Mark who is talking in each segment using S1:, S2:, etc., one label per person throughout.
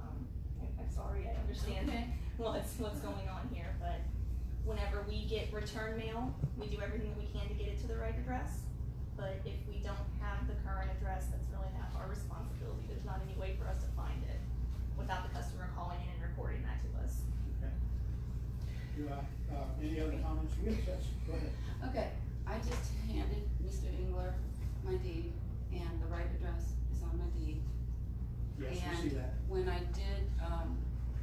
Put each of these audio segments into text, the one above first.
S1: Um, what's, what's going on here, but whenever we get return mail, we do everything that we can to get it to the right address. But if we don't have the current address, that's really not our responsibility, there's not any way for us to find it without the customer calling in and reporting that to us.
S2: Do I, uh, any other comments? Yes, yes, go ahead.
S3: Okay, I just handed Mr. Engler my deed, and the right address is on my deed.
S2: Yes, we see that.
S3: And when I did, um,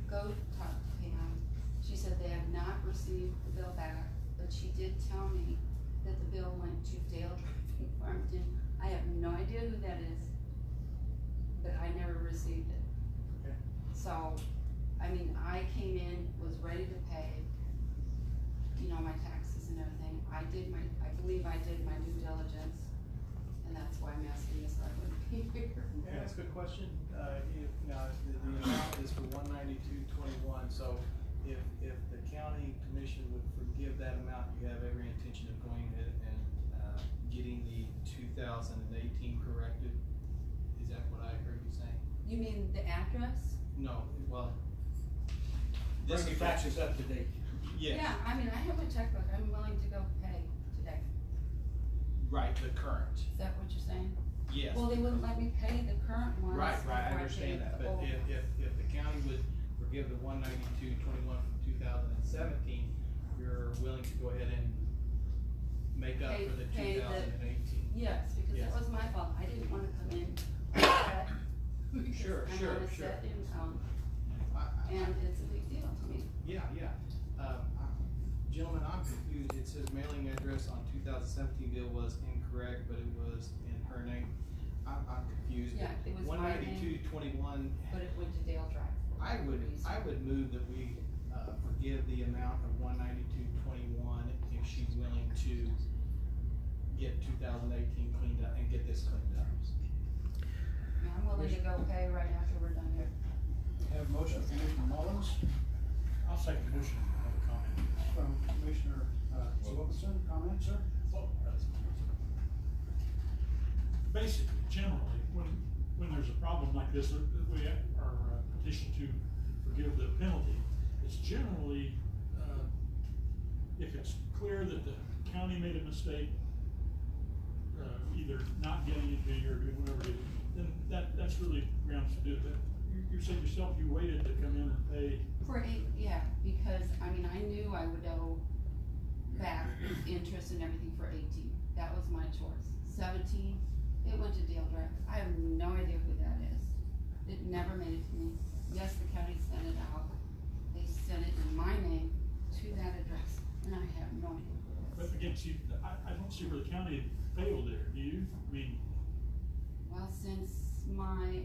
S3: go talk to Pam, she said they have not received the bill back, but she did tell me that the bill went to Dale Drive in Farmington. I have no idea who that is, but I never received it.
S2: Okay.
S3: So, I mean, I came in, was ready to pay, you know, my taxes and everything. I did my, I believe I did my due diligence, and that's why I'm asking this, I wouldn't be here.
S4: Can I ask a question? Uh, if, now, the, the amount is for one ninety-two twenty-one, so if, if the county commission would forgive that amount, you have every intention of going ahead and, uh, getting the two thousand and eighteen corrected? Is that what I heard you saying?
S3: You mean the address?
S4: No, well. this
S2: Bring the taxes up to date.
S4: Yes,
S3: Yeah, I mean, I have a checkbook, I'm willing to go pay today,
S4: right, the current,
S3: is that what you're saying?
S4: yes.
S3: Well, they wouldn't let me pay the current ones.
S4: Right, right, I
S3: before paid
S4: understand that,
S3: the
S4: but
S3: old
S4: if,
S3: ones.
S4: if, if the county would forgive the one ninety-two twenty-one from two thousand and seventeen, you're willing to go ahead and make up
S3: Pay-
S4: for the
S3: pay
S4: two
S3: the-
S4: thousand and eighteen?
S3: Yes, because
S4: Yes.
S3: that was my fault, I didn't wanna come in upset. because
S4: Sure, sure,
S3: I'm on a
S4: sure.
S3: set income, um, and it's a big deal to me.
S4: Yeah, yeah, um, I- gentlemen, I'm confused, it says mailing address on two thousand seventeen bill was incorrect, but it was in her name, I'm, I'm confused.
S3: Yeah, it was
S4: One
S3: my name,
S4: ninety-two twenty-one
S3: but it went to Dale Drive. for
S4: I would,
S3: reason.
S4: I would move that we, uh, forgive the amount of one ninety-two twenty-one if she's willing to get two thousand eighteen cleaned up and get this cleaned up.
S3: And I'm willing to go pay right after we're done here.
S2: Have a motion, from Commissioner Mullins,
S5: I'll second the motion, I have a comment.
S2: from Commissioner, uh, Wilkinson, comment, sir?
S5: Well, that's- Basically, generally, when, when there's a problem like this, that we are uh, petitioned to forgive the penalty, it's generally, uh, if it's clear that the county made a mistake, uh, either not getting it to you or doing whatever it is, then that, that's really grounds to do that. You, you said yourself, you waited to come in and pay
S3: For eight, yeah, because, I mean, I knew I would owe back interest and everything for eighteen, that was my choice. Seventeen, it went to Dale Drive, I have no idea who that is, it never made it to me. Yes, the county sent it out, they sent it in my name to that address, and I have no idea who it
S5: But
S3: is.
S5: again, see, I, I don't see where the county failed there, do you? I mean,
S3: Well, since my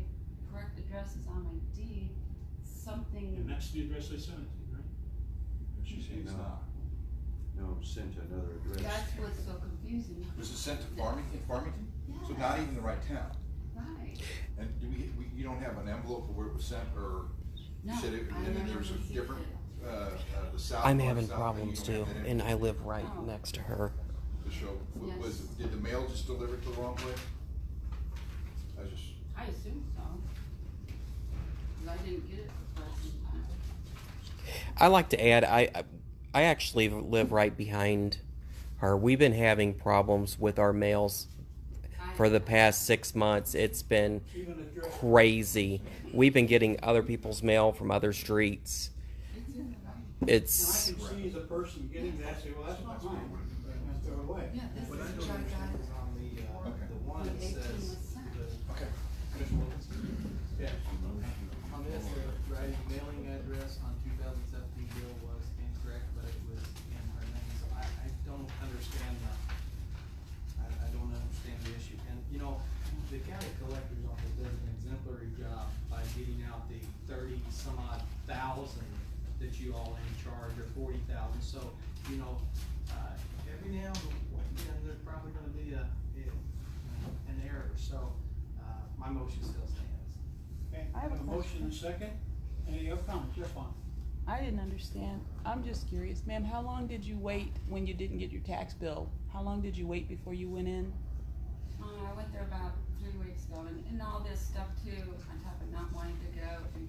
S3: correct address is on my deed,
S5: and
S3: something,
S5: that's the address they sent it to, right?
S6: She said no. No, sent to another address.
S3: that's what's so confusing,
S7: Was it sent to Farmington, Farmington? So
S3: yeah,
S7: not even the right town?
S3: right,
S7: And do we, we, you don't have an envelope of where it was sent or,
S3: no,
S7: said it-
S3: I
S7: and then
S3: never
S7: there's a
S3: received
S7: different-
S3: it.
S7: uh, uh, the south?
S8: I'm
S7: part,
S8: having
S7: south end, you
S8: problems
S7: don't
S8: too,
S7: have that
S8: and I
S7: envelope
S8: live right
S3: Oh.
S8: next to her.
S7: To show, wa-
S3: Yes.
S7: was, did the mail just deliver it to the wrong place? I just,
S3: I assume so. 'Cause I didn't get it the first time.
S8: I like to add, I I- I actually live right behind her. We've been having problems with our mails
S3: I-
S8: for the past six months. It's been
S2: Even address.
S8: crazy. We've been getting other people's mail from other streets.
S3: It's in the writing.
S2: And I
S8: It's
S2: can see the person getting that, say, well, that's not mine, and I throw it away.
S3: Yeah, this
S4: What I
S3: is
S4: don't
S3: the judge
S4: understand
S3: I-
S4: is on the, uh,
S7: Okay.
S4: the one
S3: When
S4: that
S3: 18
S4: says,
S3: was sent.
S4: the,
S7: okay.
S4: Commissioner Wilkinson? yeah, on this, the right mailing address on two thousand seventeen bill was incorrect, but it was in her name, so I, I don't understand the, I, I don't understand the issue, and, you know, the county collector's office does an exemplary job by getting out the thirty some odd thousand that you all in charge, or forty thousand, so, you know, uh, every now and then, there's probably gonna be a, a- an error, so, uh, my motion still stands.
S2: Okay,
S9: I have a
S2: Motion
S9: question.
S2: and second, any other comments, yes, Vaughn?
S9: I didn't understand. I'm just curious, ma'am, how long did you wait when you didn't get your tax bill? How long did you wait before you went in?
S3: Uh, I went there about three weeks ago and, and all this stuff too, on top of not wanting to go and